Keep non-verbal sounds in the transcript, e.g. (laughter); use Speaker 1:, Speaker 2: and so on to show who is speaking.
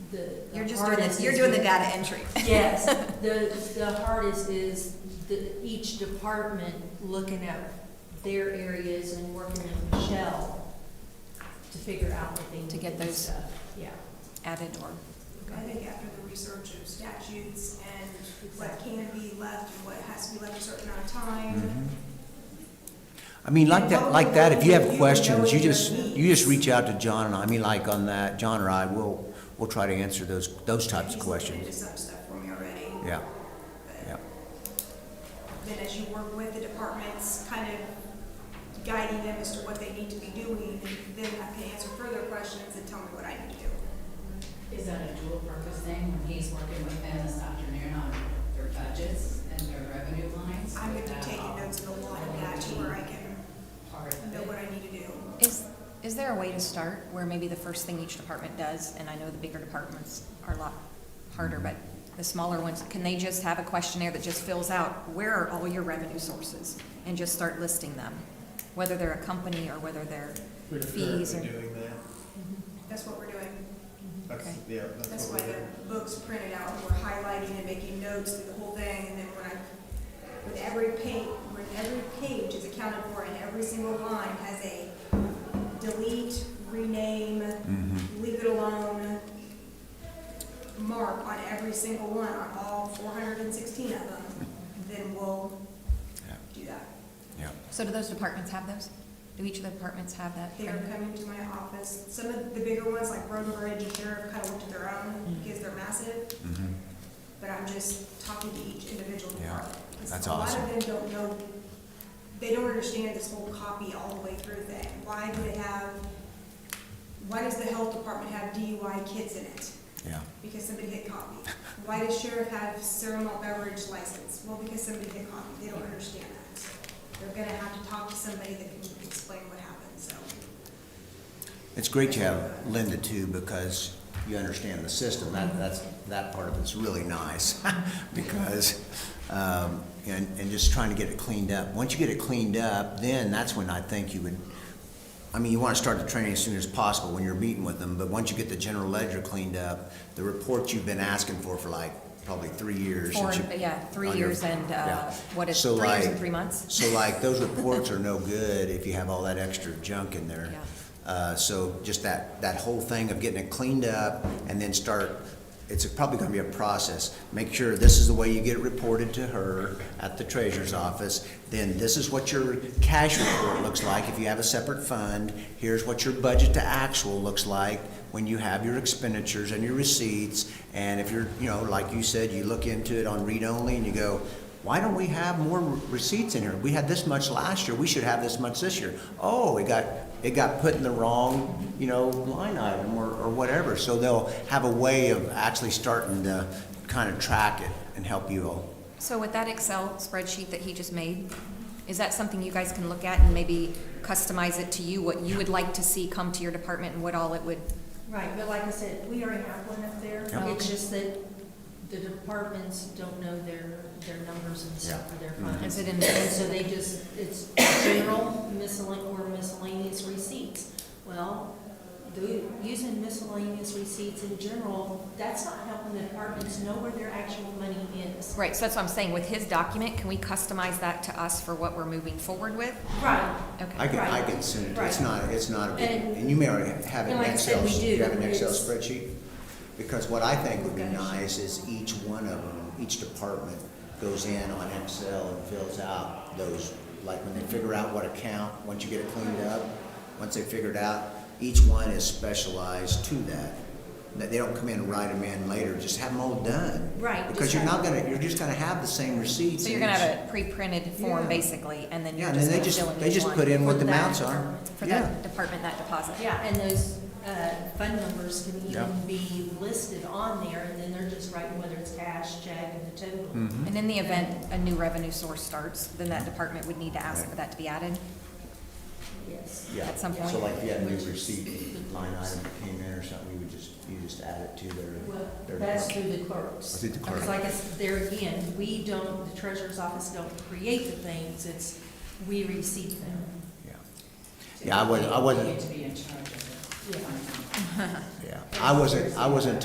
Speaker 1: the. the
Speaker 2: You're just doing
Speaker 1: hardest
Speaker 2: the, you're
Speaker 1: is
Speaker 2: doing the
Speaker 1: with-
Speaker 2: data (laughs) entry.
Speaker 1: Yes, the, the hardest is the, each department looking at their areas and working with Michelle to figure out what they need
Speaker 2: To get
Speaker 1: and
Speaker 2: those.
Speaker 1: stuff. Yeah.
Speaker 2: Added or,
Speaker 3: I think after the research of statutes and what can be left and what has to be left a certain amount of time.
Speaker 4: Mm-hmm. I mean, like that, like that, if you have questions, you just, you just reach out to John and I, I mean, like on that, John or I, we'll, we'll try to answer those, those types of
Speaker 3: He's looking into
Speaker 4: questions.
Speaker 3: some stuff for me already.
Speaker 4: Yeah, yeah.
Speaker 3: But Then as you work with the departments, kind of guiding them as to what they need to be doing, then I can answer further questions and tell me what I need to do.
Speaker 5: Is that a dual purpose thing when he's working with them this afternoon on their budgets and their revenue lines?
Speaker 3: I'm gonna
Speaker 5: Would
Speaker 3: be
Speaker 5: that
Speaker 3: taking
Speaker 5: all
Speaker 3: notes of a lot of that to where I can
Speaker 5: be Part of
Speaker 3: know
Speaker 5: it.
Speaker 3: what I need to do.
Speaker 2: is, is there a way to start where maybe the first thing each department does, and I know the bigger departments are a lot harder, but the smaller ones, can they just have a questionnaire that just fills out, where are all your revenue sources? And just start listing them, whether they're a company or whether they're
Speaker 6: We're
Speaker 2: fees or.
Speaker 6: currently doing that.
Speaker 3: That's what we're doing.
Speaker 6: That's,
Speaker 2: Okay.
Speaker 6: yeah,
Speaker 3: That's
Speaker 6: that's
Speaker 3: why
Speaker 6: what we're doing.
Speaker 3: the book's printed out, we're highlighting and making notes through the whole thing, and then when I, with every page, when every page is accounted for, and every single line has a delete, rename,
Speaker 4: mm-hmm,
Speaker 3: leave it alone mark on every single one, on all four hundred and sixteen of them, then we'll
Speaker 4: Yeah.
Speaker 3: do that.
Speaker 4: Yeah.
Speaker 2: So do those departments have those? Do each of the departments have that?
Speaker 3: They are coming to my office, some of the bigger ones, like Road and Bridge and Sheriff, kind of looked at their own, because they're massive,
Speaker 4: Mhm.
Speaker 3: but I'm just talking to each individual
Speaker 4: Yeah,
Speaker 3: department. 'Cause
Speaker 4: that's
Speaker 3: A
Speaker 4: awesome.
Speaker 3: lot of them don't know, they don't understand this whole copy all the way through thing. Why do they have, why does the health department have DUI kids in it?
Speaker 4: Yeah,
Speaker 3: Because somebody hit copy. Why does sheriff have cereal malt beverage license? Well, because somebody hit copy. They don't understand that. They're gonna have to talk to somebody that can explain what happened, so.
Speaker 4: it's great to have Linda too, because you understand the system, that, that's, that part of it's really nice, (laughs) because, um, and, and just trying to get it cleaned up. Once you get it cleaned up, then that's when I think you would, I mean, you want to start the training as soon as possible when you're meeting with them, but once you get the general ledger cleaned up, the reports you've been asking for for like probably three years.
Speaker 2: Four,
Speaker 4: since you-
Speaker 2: yeah, three
Speaker 4: on your-
Speaker 2: years and, uh,
Speaker 4: yeah.
Speaker 2: what is,
Speaker 4: So
Speaker 2: three years
Speaker 4: like-
Speaker 2: and three months?
Speaker 4: So like,
Speaker 2: (laughs)
Speaker 4: those reports are no good if you have all that extra junk in there. Uh, so just that, that whole thing of getting it cleaned up and then start, it's probably gonna be a process. Make sure this is the way you get it reported to her at the treasurer's office. Then this is what your cash report looks like if you have a separate fund. Here's what your budget to actual looks like when you have your expenditures and your receipts. And if you're, you know, like you said, you look into it on read-only and you go, why don't we have more receipts in here? We had this much last year, we should have this much this year. Oh, it got, it got put in the wrong, you know, line item or, or whatever. So they'll have a way of actually starting to kind of track it and help you all.
Speaker 2: So with that Excel spreadsheet that he just made, is that something you guys can look at and maybe customize it to you, what you would like to see come to your department and what all it would?
Speaker 1: Right, but like I said, we already have one up there.
Speaker 2: Yeah.
Speaker 1: It's just that the departments don't know their, their numbers and stuff
Speaker 4: Yeah.
Speaker 1: for their
Speaker 4: Mhm.
Speaker 1: funds.
Speaker 2: Is it in
Speaker 1: And
Speaker 2: the,
Speaker 1: so they just, it's general miscellaneous or miscellaneous receipts. Well, do, using miscellaneous receipts in general, that's not helping the departments know where their actual money is.
Speaker 2: right, so that's what I'm saying, with his document, can we customize that to us for what we're moving forward with?
Speaker 1: Right.
Speaker 4: I
Speaker 2: Okay,
Speaker 4: can, I
Speaker 1: Right.
Speaker 4: can send it, it's
Speaker 1: Right.
Speaker 4: not, it's not, a big-
Speaker 1: And-
Speaker 4: and you may already have
Speaker 1: And
Speaker 4: it in
Speaker 1: like I said,
Speaker 4: Excel,
Speaker 1: we
Speaker 4: you
Speaker 1: do.
Speaker 4: have an Excel
Speaker 1: It's-
Speaker 4: spreadsheet? Because what I think would be
Speaker 1: Okay.
Speaker 4: nice is each one of them, each department goes in on Excel and fills out those, like when they figure out what account, once you get it cleaned up, once they figure it out, each one is specialized to that. That they don't come in and write them in later, just have them all done.
Speaker 1: Right,
Speaker 4: Because
Speaker 1: just
Speaker 4: you're
Speaker 1: have-
Speaker 4: not gonna, you're just gonna have the same receipts.
Speaker 2: so you're
Speaker 4: in
Speaker 2: gonna
Speaker 4: each-
Speaker 2: have a pre-printed form
Speaker 4: Yeah.
Speaker 2: basically, and then
Speaker 4: Yeah,
Speaker 2: you're
Speaker 4: and
Speaker 2: just
Speaker 4: then they
Speaker 2: gonna
Speaker 4: just,
Speaker 2: fill in each one?
Speaker 4: they just put in what
Speaker 1: for
Speaker 4: the
Speaker 1: that
Speaker 4: amounts are.
Speaker 1: department.
Speaker 2: For
Speaker 4: Yeah.
Speaker 2: that department, that deposit?
Speaker 1: Yeah, and those, uh, fund numbers can
Speaker 4: Yeah.
Speaker 1: even be listed on there, and then they're just writing whether it's cash, check, and the total.
Speaker 2: And in the event a new revenue source starts, then that department would need to ask for that to be added?
Speaker 1: Yes.
Speaker 4: Yeah.
Speaker 2: at some point.
Speaker 4: So like if you had a new receipt line item that came in or something, you would just, you just add it to their.
Speaker 1: Well,
Speaker 4: their-
Speaker 1: that's through the clerks.
Speaker 4: Through the clerk.
Speaker 1: Because like I said, there again, we don't, the treasurer's office don't create the things, it's, we receive them.
Speaker 4: Yeah, Yeah, I wasn't- I wasn't-
Speaker 5: You need to be in charge of it.
Speaker 1: Yeah.
Speaker 4: yeah. I wasn't, I wasn't